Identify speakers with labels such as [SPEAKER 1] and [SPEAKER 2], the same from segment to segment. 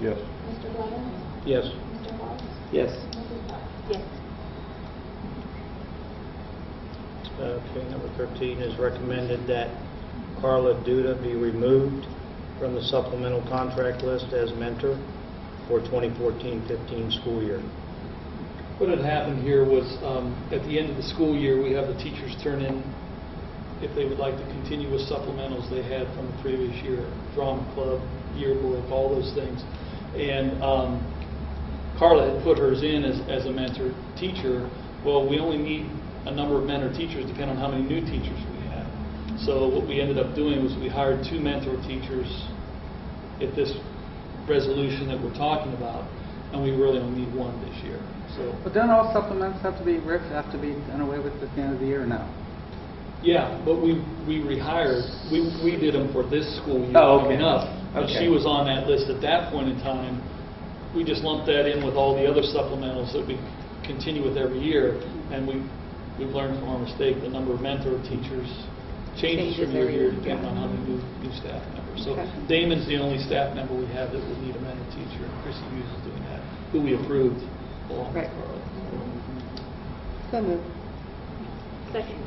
[SPEAKER 1] Yes.
[SPEAKER 2] Mr. Blevins?
[SPEAKER 3] Yes.
[SPEAKER 2] Mr. Hall?
[SPEAKER 4] Yes.
[SPEAKER 2] Mrs. Potts?
[SPEAKER 5] Yes.
[SPEAKER 3] Okay, number 13 is recommended that Carla Duda be removed from the supplemental contract list as mentor for 2014-15 school year.
[SPEAKER 4] What had happened here was, um, at the end of the school year, we have the teachers turn in if they would like to continue with supplementals they had from the previous year, drama club, yearbook, all those things. And um, Carla had put hers in as, as a mentor teacher. Well, we only need a number of mentor teachers depending on how many new teachers we have. So what we ended up doing was we hired two mentor teachers at this resolution that we're talking about, and we really only need one this year, so.
[SPEAKER 6] But don't all supplements have to be ripped, have to be done away with at the end of the year, or no?
[SPEAKER 4] Yeah, but we, we rehired, we, we did them for this school year
[SPEAKER 6] Oh, okay.
[SPEAKER 4] coming up. And
[SPEAKER 6] Okay.
[SPEAKER 4] she was on that list at that point in time. We just lumped that in with all the other supplementals that we continue with every year. And we, we've learned from our mistake, the number of mentor teachers changes
[SPEAKER 5] Changes
[SPEAKER 4] from year to
[SPEAKER 5] every
[SPEAKER 4] year
[SPEAKER 5] year,
[SPEAKER 4] depending on
[SPEAKER 5] yeah.
[SPEAKER 4] how many new, new staff members. So
[SPEAKER 5] Okay.
[SPEAKER 4] Damon's the only staff member we have that would need a mentor teacher. and Chrissy Hughes is doing that, who we approved along with
[SPEAKER 5] Right.
[SPEAKER 4] Carla.
[SPEAKER 5] So moved. Second.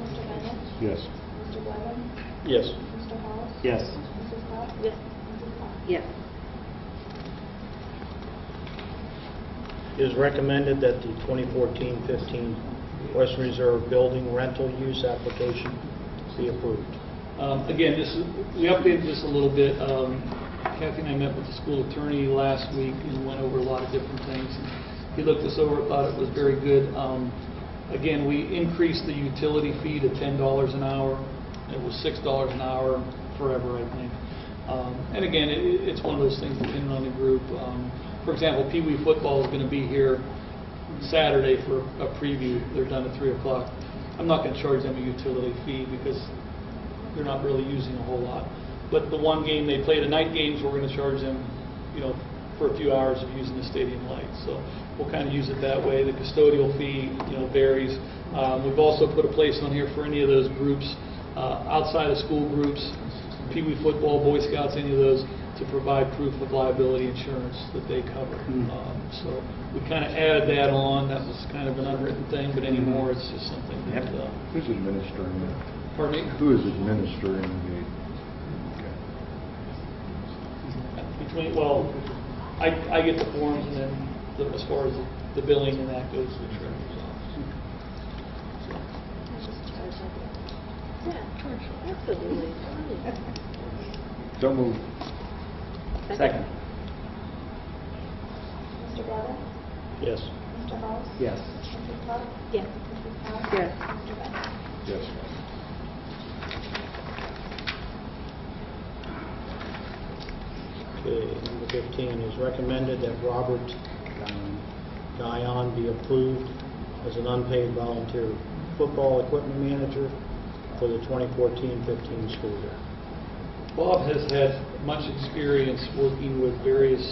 [SPEAKER 2] Mr. Bennett?
[SPEAKER 1] Yes.
[SPEAKER 2] Mr. Blevins?
[SPEAKER 3] Yes.
[SPEAKER 2] Mr. Hall?
[SPEAKER 3] Yes.
[SPEAKER 2] Mrs. Potts?
[SPEAKER 5] Yes.
[SPEAKER 2] Mrs. Potts?
[SPEAKER 5] Yes.
[SPEAKER 3] It is recommended that the 2014-15 Western Reserve Building rental use application be approved.
[SPEAKER 4] Um, Again, this, is- we updated this a little bit. Um, Kathy and I met with the school attorney last week and went over a lot of different things. He looked this over, thought it was very good. Um, Again, we increased the utility fee to $10 an hour. It was $6 an hour forever, I think. Um, And again, it- it- it's one of those things depending on the group. Um, For example, Pee Wee football is going to be here Saturday for a preview. They're done at 3 o'clock. I'm not going to charge them a utility fee because they're not really using a whole lot. But the one game they play, the night games, we're going to charge them, you know, for a few hours of using the stadium lights. So we'll kind of use it that way. The custodial fee, you know, varies. Um, We've also put a place on here for any of those groups, uh, outside of school groups, Pee Wee football, Boy Scouts, any of those, to provide proof of liability insurance that they cover.
[SPEAKER 6] Mm.
[SPEAKER 4] Um, So we kind of added that on. That was kind of an unwritten thing, but anymore, it's just something that,
[SPEAKER 6] Yep.
[SPEAKER 4] uh,
[SPEAKER 1] Who's administering that?
[SPEAKER 4] pardon me?
[SPEAKER 1] Who is administering the? Okay.
[SPEAKER 4] Between, well, I, I get the forms and then the- as far as the billing and that goes to the treasurer's office.
[SPEAKER 2] Mrs. Potts?
[SPEAKER 5] Yeah, absolutely.
[SPEAKER 1] So moved.
[SPEAKER 6] Second.
[SPEAKER 2] Mr. Blevins?
[SPEAKER 3] Yes.
[SPEAKER 2] Mr. Hall?
[SPEAKER 6] Yes.
[SPEAKER 2] Mrs. Potts?
[SPEAKER 5] Yes.
[SPEAKER 2] Mrs. Potts?
[SPEAKER 5] Yes.
[SPEAKER 2] Mr. Bennett?
[SPEAKER 1] Yes.
[SPEAKER 3] Okay, number 15 is recommended that Robert um, Guyon be approved as an unpaid volunteer football equipment manager for the 2014-15 school year.
[SPEAKER 4] Bob has had much experience working with various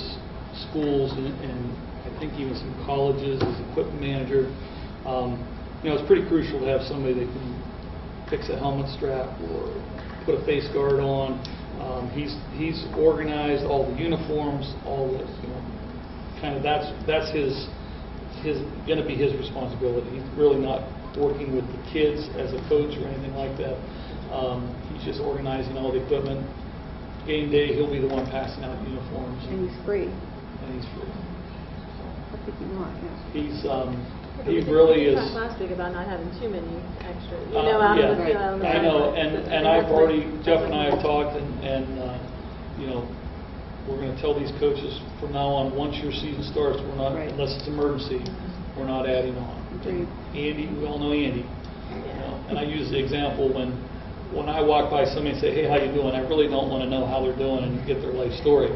[SPEAKER 4] schools and and I think even some colleges as equipment manager. Um, You know, it's pretty crucial to have somebody that can fix a helmet strap or put a face guard on. Um, He's, he's organized all the uniforms, all the, you know, kind of, that's, that's his, his, going to be his responsibility. He's really not working with the kids as a coach or anything like that. Um, He's just organizing all the equipment. Game day, he'll be the one passing out uniforms,
[SPEAKER 5] And he's free.
[SPEAKER 4] and he's free.
[SPEAKER 5] What did you want? Yeah.
[SPEAKER 4] He's, um, he really is...
[SPEAKER 7] We talked last week about not having too many extra, you
[SPEAKER 4] Uh,
[SPEAKER 7] know, out
[SPEAKER 4] yeah,
[SPEAKER 7] of the field.
[SPEAKER 4] I know, and, and I've already, Jeff and I have talked, and, and, uh, you know, we're gonna tell these coaches from now on, once your season starts, we're not,
[SPEAKER 5] Right.
[SPEAKER 4] unless it's emergency, we're not adding on.
[SPEAKER 5] Agreed.
[SPEAKER 4] Andy, we all know Andy. you know, And I use the example when, when I walk by somebody and say, hey, how you doing? I really don't wanna know how they're doing and get their life story.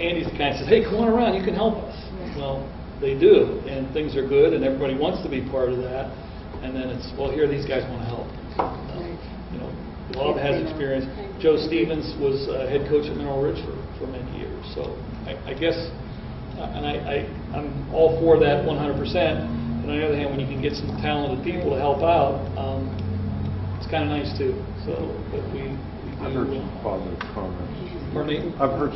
[SPEAKER 4] Andy's the kind that says, hey, come on around, you can help us.
[SPEAKER 5] Yeah.
[SPEAKER 4] Well, they do, and things are good, and everybody wants to be part of that, and then it's, well, here, these guys wanna help.
[SPEAKER 5] Right.
[SPEAKER 4] You know, Bob has experience. Joe Stevens was uh, head coach at Mineral Ridge for, for many years, so I, I guess, uh, and I, I, I'm all for that one hundred percent. And on the other hand, when you can get some talented people to help out, um, it's kinda nice too, so, but we. we
[SPEAKER 1] I've heard
[SPEAKER 4] do, uh,
[SPEAKER 1] some positive comments.
[SPEAKER 4] Pardon me?
[SPEAKER 1] I've heard